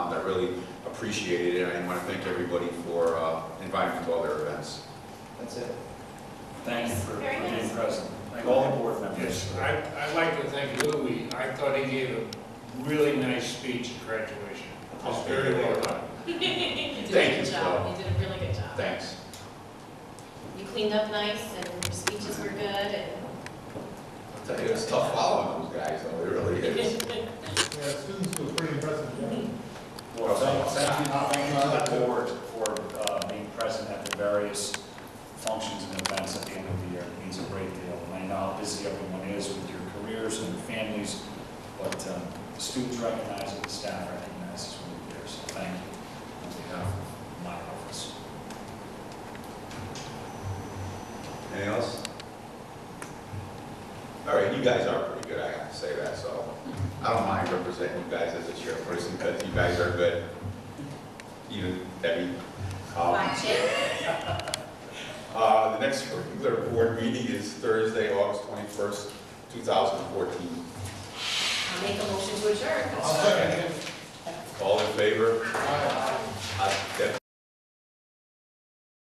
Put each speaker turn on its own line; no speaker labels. really appreciated it. I want to thank everybody for uh, inviting me to all their events.
That's it.
Thank you
Nice,
for for
very
being
nice.
present. Thank all the board members.
Yes, I, I'd like to thank Louis. I thought he gave a really nice speech at graduation. It was very well done.
You did
Thank
a
you,
good
Flo.
job, you did a really good job.
Thanks.
You cleaned up nice, and your speeches were good, and
I'll tell you, it's tough following those guys, though, it really is.
Yeah, students was pretty impressive, yeah.
Well, thank thank you, thank you to the board for uh, being present at the various functions and events at the end of the year. It means a great deal. And I know how busy everyone is with your careers and your families, but um, the students recognize it, the staff recognizes when you're there, so thank you on behalf of my office.
Anything else? All right, you guys are pretty good, I have to say that, so I don't mind representing you guys as a chairperson, because you guys are good. You, Debbie. um, Uh, The next regular board meeting is Thursday, August 21st, 2014.
I'll make a motion to adjourn.
I'll second it.
All in favor?
Aye.